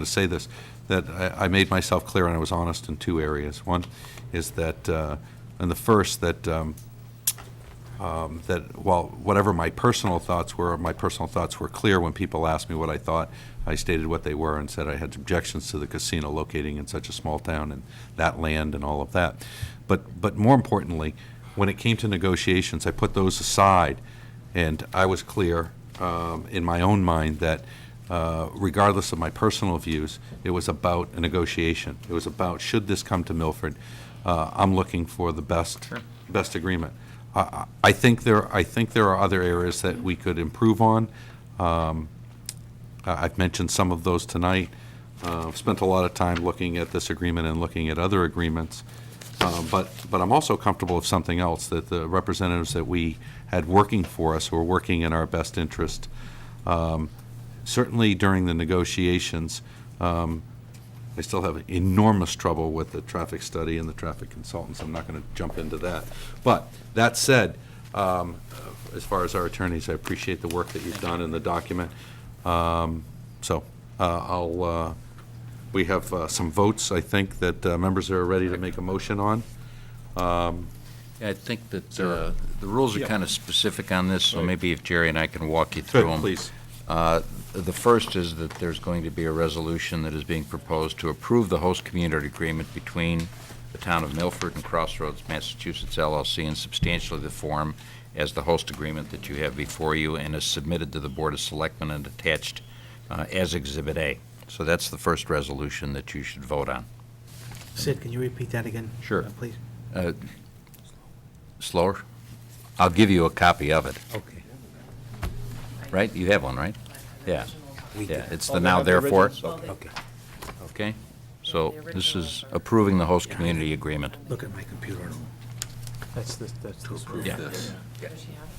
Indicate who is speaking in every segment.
Speaker 1: to say this, that I, I made myself clear and I was honest in two areas. One is that, uh, and the first, that, um, um, that while whatever my personal thoughts were, my personal thoughts were clear when people asked me what I thought. I stated what they were and said I had objections to the casino locating in such a small town and that land and all of that. But, but more importantly, when it came to negotiations, I put those aside and I was clear um, in my own mind that uh, regardless of my personal views, it was about a negotiation. It was about, should this come to Milford, uh, I'm looking for the best, best agreement. I- I I think there, I think there are other areas that we could improve on. Um, I- I've mentioned some of those tonight. Uh, I've spent a lot of time looking at this agreement and looking at other agreements. Uh, But, but I'm also comfortable with something else, that the representatives that we had working for us were working in our best interest. Um, Certainly during the negotiations, um, I still have enormous trouble with the traffic study and the traffic consultants. I'm not going to jump into that. But that said, um, as far as our attorneys, I appreciate the work that you've done in the document. Um, So uh, I'll, uh, we have uh, some votes, I think, that uh, members are ready to make a motion on.
Speaker 2: I think that uh, the rules are kind of specific on this, so maybe if Jerry and I can walk you through them.
Speaker 1: Please.
Speaker 2: Uh, The first is that there's going to be a resolution that is being proposed to approve the host community agreement between the town of Milford and Crossroads, Massachusetts LLC in substantially the form as the host agreement that you have before you and is submitted to the Board of Selectmen and attached uh, as Exhibit A. So that's the first resolution that you should vote on.
Speaker 3: Sid, can you repeat that again?
Speaker 2: Sure.
Speaker 3: uh, Please.
Speaker 2: Uh, Slower? I'll give you a copy of it.
Speaker 3: Okay.
Speaker 2: Right? You have one, right? Yeah. Yeah, it's
Speaker 4: Oh,
Speaker 2: the
Speaker 4: they
Speaker 2: now
Speaker 4: have the
Speaker 2: therefore,
Speaker 4: originals? Okay.
Speaker 3: Okay.
Speaker 2: okay? So this is approving the host community agreement.
Speaker 3: Look at my computer. at all. That's the, that's the.
Speaker 2: Yeah.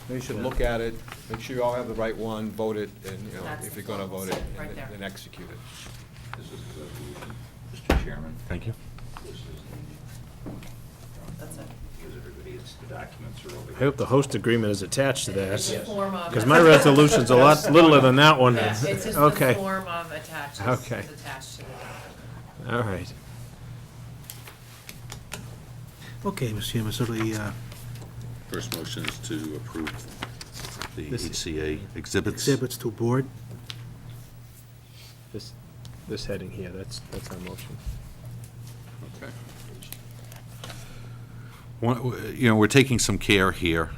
Speaker 4: You should look at it, make sure you all have the right one, vote it, and, you know,
Speaker 5: That's
Speaker 4: if
Speaker 5: the
Speaker 4: you're gonna
Speaker 5: total,
Speaker 4: vote it,
Speaker 5: right
Speaker 4: and
Speaker 5: there.
Speaker 4: then execute it.
Speaker 2: Mr. Chairman.
Speaker 1: Thank you.
Speaker 5: That's it.
Speaker 6: I hope the host agreement is attached to
Speaker 5: It's the
Speaker 6: that,
Speaker 5: form of.
Speaker 6: because my resolution's a lot littler than that one.
Speaker 5: Yeah, It's just the
Speaker 6: Okay,
Speaker 5: form of attached, it's
Speaker 6: Okay.
Speaker 5: attached to the document.
Speaker 6: all right.
Speaker 3: Okay, Mr. Chairman, so the, uh,
Speaker 1: First motion is to approve the
Speaker 3: This-
Speaker 1: HCA exhibits.
Speaker 3: exhibits to board,
Speaker 6: This, this heading here, that's, that's our motion.
Speaker 1: One- You know, we're taking some care here,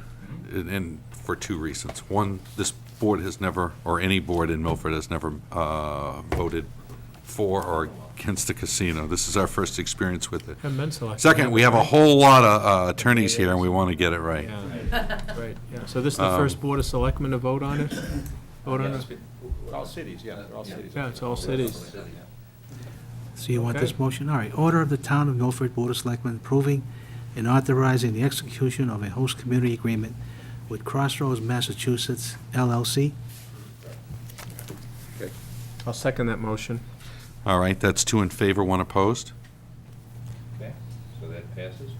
Speaker 1: and- and for two reasons. One, this board has never, or any board in Milford has never uh, voted for or against a casino. This is our first experience with it.
Speaker 6: Haven't been selected.
Speaker 1: Second, we have a whole lot of uh, attorneys here, and we want to get it right. Um,
Speaker 6: Yeah, Right, yeah, so this is the first Board of Selectmen to vote on it? Vote on it?
Speaker 4: All cities, yeah, they're all cities.
Speaker 6: Yeah, it's all cities.
Speaker 3: so you want this
Speaker 6: Okay.
Speaker 3: motion? All right, order of the Town of Milford Board of Selectmen approving and authorizing the execution of a host community agreement with Crossroads, Massachusetts LLC.
Speaker 6: I'll second that motion.
Speaker 1: All right, that's two in favor, one opposed.
Speaker 2: Okay, so that passes?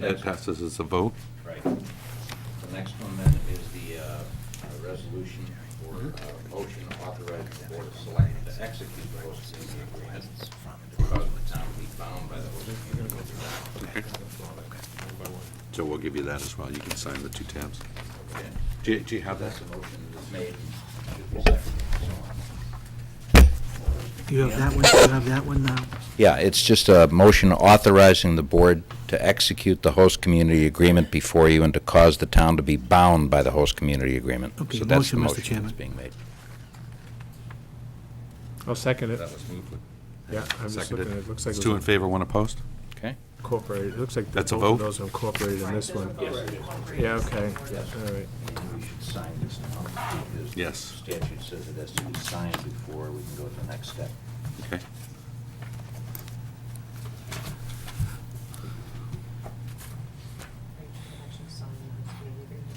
Speaker 1: That passes as a vote.
Speaker 2: Right. The next one then is the uh, uh, resolution or uh, motion authorizing the Board of Selectmen to execute the host community agreement because the town will be bound by the host community agreement.
Speaker 1: So we'll give you that as well. You can sign the two tabs.
Speaker 2: Okay.
Speaker 1: Do you- do you have that?
Speaker 2: That's the motion that is made. Should be seconded, so on.
Speaker 3: You have that one, you have that one now?
Speaker 2: Yeah, it's just a motion authorizing the board to execute the host community agreement before you and to cause the town to be bound by the host community agreement.
Speaker 3: Okay,
Speaker 2: So that's the
Speaker 3: motion, Mr.
Speaker 2: motion that's
Speaker 3: Chairman.
Speaker 2: being made.
Speaker 6: I'll second it.
Speaker 1: That was moved.
Speaker 6: Yeah, I'm just
Speaker 1: Seconded.
Speaker 6: looking, it looks like
Speaker 1: It's
Speaker 6: it
Speaker 1: two in
Speaker 6: was
Speaker 1: favor, one opposed.
Speaker 2: Okay.
Speaker 6: incorporated, it looks like the
Speaker 1: That's a
Speaker 6: both of
Speaker 1: vote?
Speaker 6: those are incorporated in this one. Yeah, okay, all right.
Speaker 2: Maybe we should sign this now. because the
Speaker 1: Yes.
Speaker 2: Statute says it has to be signed before we can go to the next step.
Speaker 1: Okay.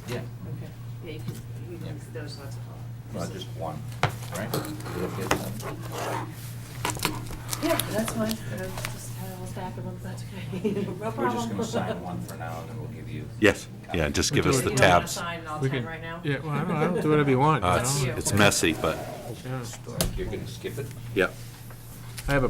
Speaker 2: Yeah.
Speaker 5: Okay. Yeah, you can, you can, there's lots of.
Speaker 2: Not just one, right? We'll get one.
Speaker 5: Yeah, that's fine, I just had a whole stack of them, that's okay, no problem.
Speaker 2: We're just gonna sign one for now, and then we'll give you.
Speaker 1: Yes, yeah, just give us
Speaker 5: You
Speaker 1: the
Speaker 5: don't wanna
Speaker 1: tabs.
Speaker 5: sign all
Speaker 6: We
Speaker 5: ten
Speaker 6: can-
Speaker 5: right now?
Speaker 6: Yeah, well, I don't, I don't do whatever you want.
Speaker 1: Uh,
Speaker 6: you
Speaker 1: It's
Speaker 6: know?
Speaker 1: it's messy, but,
Speaker 6: Yeah.
Speaker 2: You're gonna skip it?
Speaker 1: yeah.
Speaker 6: I have a